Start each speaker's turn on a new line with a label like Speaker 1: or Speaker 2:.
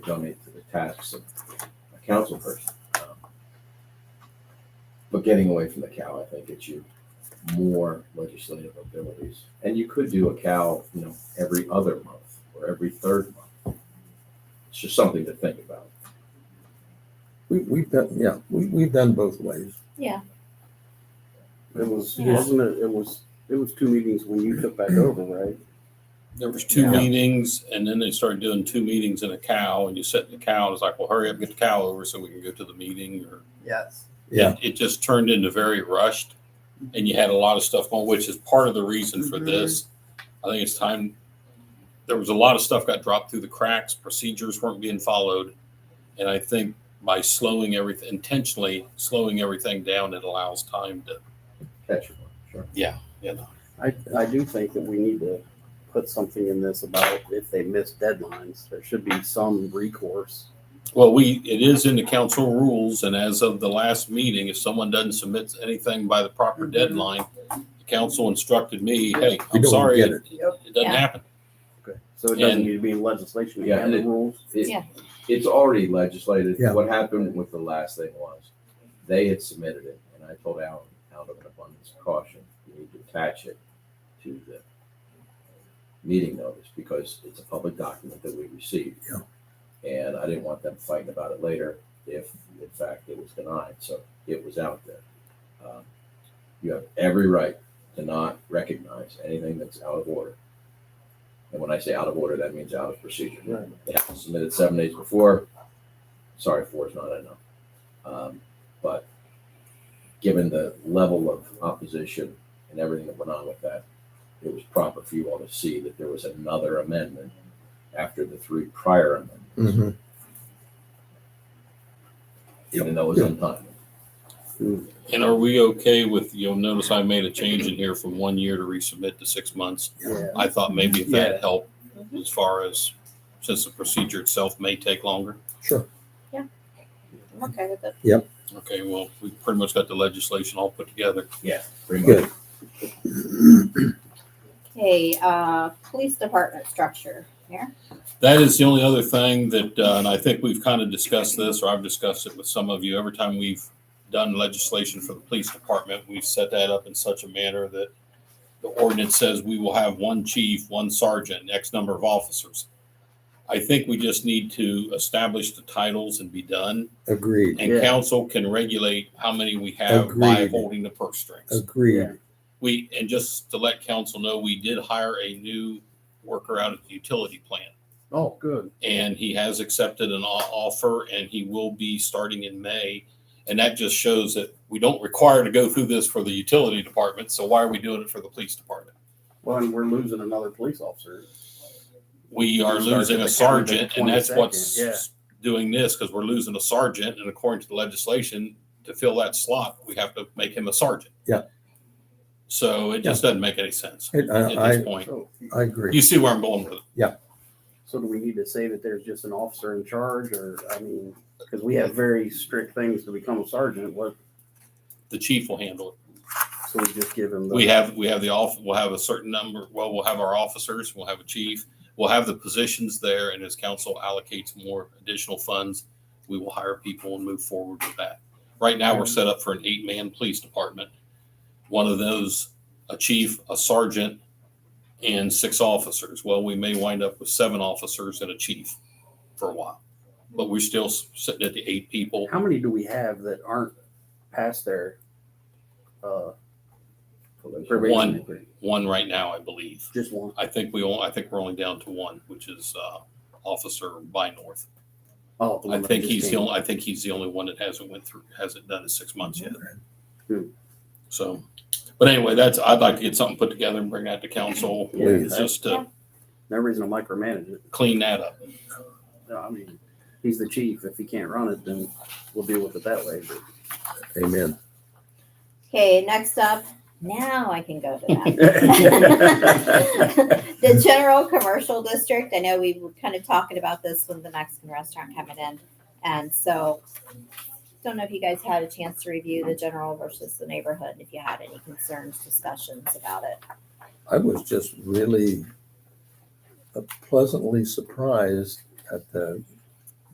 Speaker 1: donate to the tasks of a council person. Um, But getting away from the cow, I think, gets you more legislative abilities. And you could do a cow, you know, every other month or every third month. It's just something to think about.
Speaker 2: We, we've done, yeah, we, we've done both ways.
Speaker 3: It was,
Speaker 4: Yeah.
Speaker 3: wasn't it, it was, it was two meetings when you took back over, right?
Speaker 5: There was two
Speaker 2: Yeah.
Speaker 5: meetings, and then they started doing two meetings and a cow, and you sit in the cow, and it's like, well, hurry up, get the cow over so we can go to the meeting, or
Speaker 6: Yes.
Speaker 2: Yeah.
Speaker 5: it just turned into very rushed, and you had a lot of stuff going, which is part of the reason for this. I think it's time. There was a lot of stuff got dropped through the cracks. Procedures weren't being followed, and I think by slowing everything intentionally, slowing everything down, it allows time to.
Speaker 1: Catch your one, sure.
Speaker 5: You know,
Speaker 3: I, I do think that we need to put something in this about if they miss deadlines, there should be some recourse.
Speaker 5: well, we it is in the council rules, and as of the last meeting, if someone doesn't submit anything by the proper
Speaker 2: Mm-hmm.
Speaker 6: Mhm.
Speaker 5: deadline, the council instructed me, "Hey,
Speaker 2: We
Speaker 5: I'm
Speaker 2: don't
Speaker 5: sorry,
Speaker 2: get
Speaker 5: it,
Speaker 2: it.
Speaker 6: Yep.
Speaker 5: it doesn't
Speaker 4: Yeah.
Speaker 5: happen."
Speaker 3: Okay. So it doesn't
Speaker 5: And-
Speaker 3: need to be in legislation, you
Speaker 1: Yeah,
Speaker 3: have
Speaker 1: and
Speaker 3: the
Speaker 1: it-
Speaker 3: rules.
Speaker 1: It-
Speaker 4: Yeah.
Speaker 1: It's already legislated.
Speaker 2: Yeah.
Speaker 1: What happened with the last thing was, they had submitted it, and I told Alan, out of an abundance of caution, you need to attach it to the meeting notice, because it's a public document that we received. And I didn't want them fighting about it later if, in fact, it was denied, so it was out there. Um, You have every right to not recognize anything that's out of order. And when I say out of order, that means out of procedure.
Speaker 3: Right.
Speaker 1: They have to submit it seven days before. Sorry, four is not enough. Um, But given the level of opposition and everything that went on with that, it was proper for you all to see that there was another amendment after the three prior amendments,
Speaker 2: Mhm.
Speaker 1: even though it was untimely.
Speaker 5: And are we okay with, you'll notice I made a change in here from one year to resubmit to six months.
Speaker 3: Yeah.
Speaker 5: I thought maybe if that helped
Speaker 4: Mhm.
Speaker 5: as far as, since the procedure itself may take longer.
Speaker 2: Sure.
Speaker 4: I'm okay with it.
Speaker 5: Okay, well, we pretty much got the legislation all put together.
Speaker 1: Yeah. Pretty
Speaker 2: Good.
Speaker 1: much.
Speaker 4: Okay, uh, police department structure here.
Speaker 5: That is the only other thing that, uh, and I think we've kind of discussed this, or I've discussed it with some of you. Every time we've done legislation for the police department, we've set that up in such a manner that the ordinance says we will have one chief, one sergeant, X number of officers. I think we just need to establish the titles and be done.
Speaker 2: Agreed,
Speaker 5: And
Speaker 3: Yeah.
Speaker 5: council can regulate how many we have by
Speaker 2: Agreed.
Speaker 5: holding the purse strings.
Speaker 2: agreed.
Speaker 5: We, and just to let council know, we did hire a new worker out at the utility plant
Speaker 3: Oh, good.
Speaker 5: and he has accepted an o- offer and he will be starting in May. And that just shows that we don't require to go through this for the utility department, so why are we doing it for the police department?
Speaker 3: Well, and we're losing another police officer.
Speaker 5: We are
Speaker 3: Sergeant
Speaker 5: losing a
Speaker 3: that counted the
Speaker 5: sergeant and that's
Speaker 3: 22nd, yeah.
Speaker 5: what's doing this, because we're losing a sergeant and according to the legislation, to fill that slot, we have to make him a sergeant.
Speaker 2: Yeah.
Speaker 5: So it just doesn't make any sense
Speaker 2: It-
Speaker 5: at
Speaker 2: I, I,
Speaker 5: this point.
Speaker 3: So,
Speaker 2: I agree.
Speaker 5: You see where I'm going with it.
Speaker 3: so do we need to say that there's just an officer in charge or, I mean, because we have very strict things to become a sergeant, what,
Speaker 5: The chief will handle it.
Speaker 3: so we just give him the.
Speaker 5: We have, we have the off, we'll have a certain number, well, we'll have our officers, we'll have a chief, we'll have the positions there, and as council allocates more additional funds, we will hire people and move forward with that. Right now, we're set up for an eight-man police department. One of those, a chief, a sergeant, and six officers. Well, we may wind up with seven officers and a chief for a while. But we're still s- sitting at the eight people.
Speaker 3: How many do we have that aren't past their uh, probation? One.
Speaker 5: One right now, I believe.
Speaker 3: Just one.
Speaker 5: I think we all, I think we're only down to one, which is uh, Officer By North.
Speaker 3: Oh, the
Speaker 5: I
Speaker 3: one that
Speaker 5: think
Speaker 3: just
Speaker 5: he's the
Speaker 3: came.
Speaker 5: only, I think he's the only one that hasn't went through, hasn't done his six months yet.
Speaker 3: Hmm.
Speaker 5: So, but anyway, that's, I'd like to get something put together and bring that to council,
Speaker 3: Yeah,
Speaker 2: Please.
Speaker 5: just to
Speaker 3: No reason to micromanage it.
Speaker 5: clean that up.
Speaker 3: No, I mean, he's the chief. If he can't run it, then we'll deal with it that way. But
Speaker 2: Amen.
Speaker 4: Okay, next up, now I can go to that.
Speaker 3: Yeah.
Speaker 4: The general commercial district, I know we were kind of talking about this with the Mexican restaurant coming in. And so, don't know if you guys had a chance to review the general versus the neighborhood, if you had any concerns, discussions about it.
Speaker 2: I was just really pleasantly surprised at the